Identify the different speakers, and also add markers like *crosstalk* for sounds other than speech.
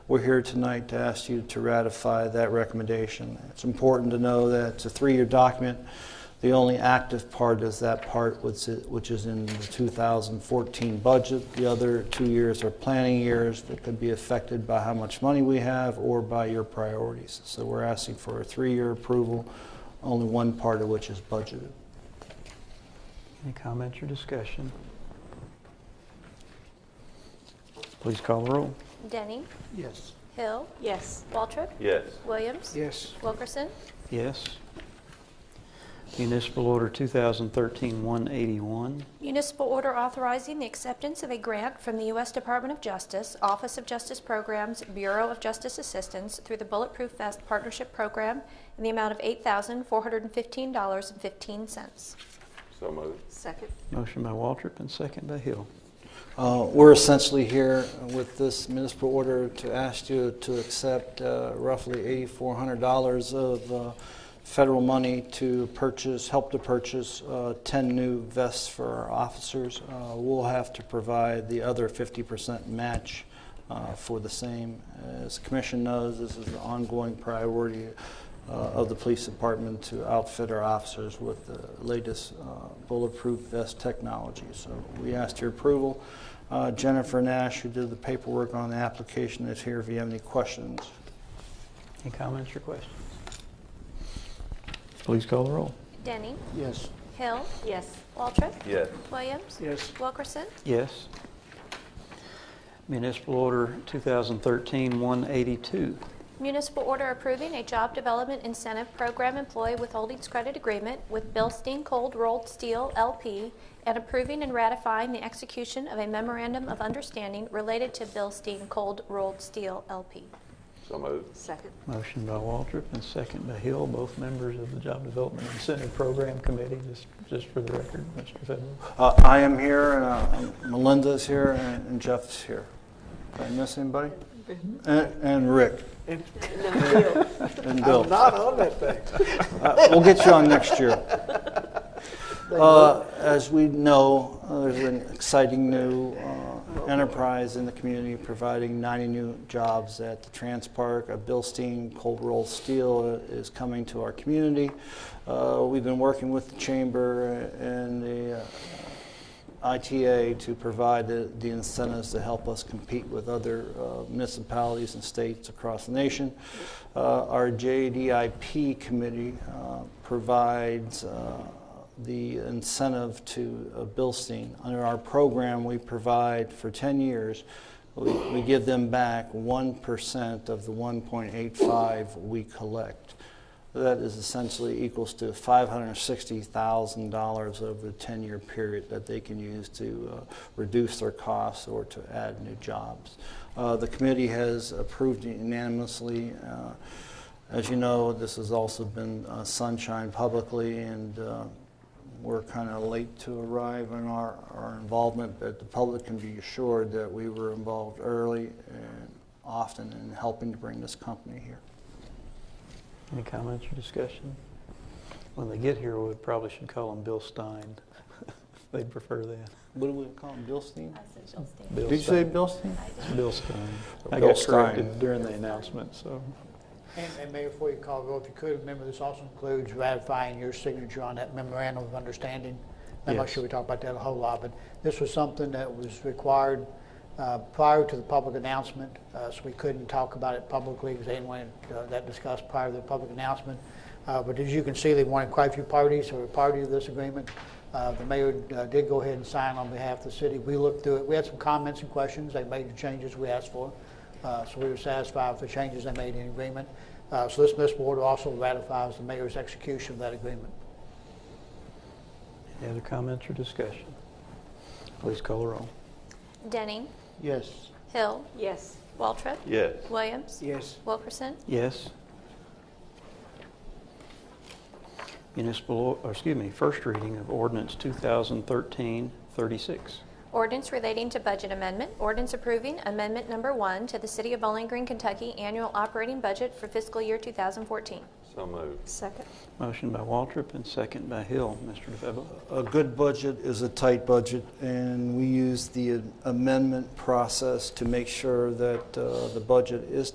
Speaker 1: We're here tonight to ask you to ratify that recommendation. It's important to know that it's a three-year document. The only active part is that part which is- which is in the 2014 budget. The other two years are planning years that could be affected by how much money we have or by your priorities. So we're asking for a three-year approval, only one part of which is budgeted.
Speaker 2: Any comments or discussion? Please call the roll.
Speaker 3: Denny.
Speaker 2: Yes.
Speaker 3: Hill.
Speaker 4: Yes.
Speaker 3: Waltrip.
Speaker 5: Yes.
Speaker 3: Williams.
Speaker 6: Yes.
Speaker 3: Wilkerson.
Speaker 2: Yes. Municipal Order 2013-181.
Speaker 3: Municipal order authorizing the acceptance of a grant from the U.S. Department of Justice, Office of Justice Programs, Bureau of Justice Assistance through the Bulletproof Vest Partnership Program in the amount of $8,415.15.
Speaker 5: So moved.
Speaker 4: Second.
Speaker 2: Motion by Waltrip and second by Hill.
Speaker 1: Uh, We're essentially here with this municipal order to ask you to accept uh, roughly $8,400 of uh, federal money to purchase, help to purchase uh, 10 new vests for our officers. Uh, We'll have to provide the other 50% match uh, for the same. As the commission knows, this is an ongoing priority uh, of the police department to outfit our officers with the latest uh, bulletproof vest technology. So we asked your approval. Uh, Jennifer Nash, who did the paperwork on the application, is here if you have any questions.
Speaker 2: Any comments or questions? Please call the roll.
Speaker 3: Denny.
Speaker 6: Yes.
Speaker 3: Hill.
Speaker 4: Yes.
Speaker 3: Waltrip.
Speaker 5: Yes.
Speaker 3: Williams.
Speaker 6: Yes.
Speaker 3: Wilkerson.
Speaker 2: Yes. Municipal Order 2013-182.
Speaker 3: Municipal order approving a job development incentive program employee withholdings credit agreement with Bilstein Cold Rolled Steel LP and approving and ratifying the execution of a memorandum of understanding related to Bilstein Cold Rolled Steel LP.
Speaker 5: So moved.
Speaker 4: Second.
Speaker 2: Motion by Waltrip and second by Hill, both members of the Job Development Incentive Program Committee, just, just for the record, Mr. Febo.
Speaker 1: Uh, I am here, and uh, Melinda's here, and and Jeff's here. Did I miss anybody? And and Rick,
Speaker 4: No, Hill.
Speaker 1: and Bill.
Speaker 6: I'm not on that thing.
Speaker 1: Uh, We'll get you on next year. Uh, As we know, uh, there's an exciting new uh, enterprise in the community providing 90 new jobs at the Trans Park. Uh, Bilstein Cold Roll Steel uh, is coming to our community. Uh, We've been working with the chamber and the uh, ITA to provide the the incentives to help us compete with other uh, municipalities and states across the nation. Uh, Our JDIP committee uh, provides uh, the incentive to uh, Bilstein. Under our program, we provide for 10 years, we we give them back 1% of the 1.85 we collect. That is essentially equals to $560,000 over the 10-year period that they can use to uh, reduce their costs or to add new jobs. Uh, The committee has approved unanimously. uh, As you know, this has also been uh, sunshine publicly, and uh, we're kind of late to arrive in our our involvement, but the public can be assured that we were involved early and often in helping to bring this company here.
Speaker 2: Any comments or discussion? When they get here, we probably should call them Bill Stein. *laughs* They'd prefer that.
Speaker 1: What do we call him, Bilstein?
Speaker 2: Bill
Speaker 1: Did you say
Speaker 2: Stein.
Speaker 1: Bilstein?
Speaker 2: Bill Stein. I
Speaker 1: Bill
Speaker 2: got
Speaker 1: Stein.
Speaker 2: corrected during the announcement, so.
Speaker 6: And, and Mayor, before you call, go, if you could, remember this also includes ratifying your signature on that memorandum of understanding. I'm not
Speaker 2: Yes.
Speaker 6: sure we talked about that a whole lot, but this was something that was required uh, prior to the public announcement, uh, so we couldn't talk about it publicly because they didn't want it, uh, that discussed prior to the public announcement. Uh, But as you can see, they wanted quite a few parties who were party to this agreement. Uh, The mayor uh, did go ahead and sign on behalf of the city. We looked through it, we had some comments and questions, they made the changes we asked for. Uh, So we were satisfied with the changes they made in the agreement. Uh, So this municipal order also ratifies the mayor's execution of that agreement.
Speaker 2: Any other comments or discussion? Please call the roll.
Speaker 3: Denning.
Speaker 6: Yes.
Speaker 3: Hill.
Speaker 4: Yes.
Speaker 3: Waltrip.
Speaker 5: Yes.
Speaker 3: Williams.
Speaker 6: Yes.
Speaker 3: Wilkerson.
Speaker 2: Yes. Municipal, or excuse me, first reading of ordinance 2013-36.
Speaker 3: Ordinance relating to budget amendment. Ordinance approving amendment number one to the City of Bowling Green, Kentucky annual operating budget for fiscal year 2014.
Speaker 5: So moved.
Speaker 4: second,
Speaker 2: Motion by Waltrip and second by Hill. Mr. DeFebo.
Speaker 1: A good budget is a tight budget, and we use the amendment process to make sure that uh, the budget is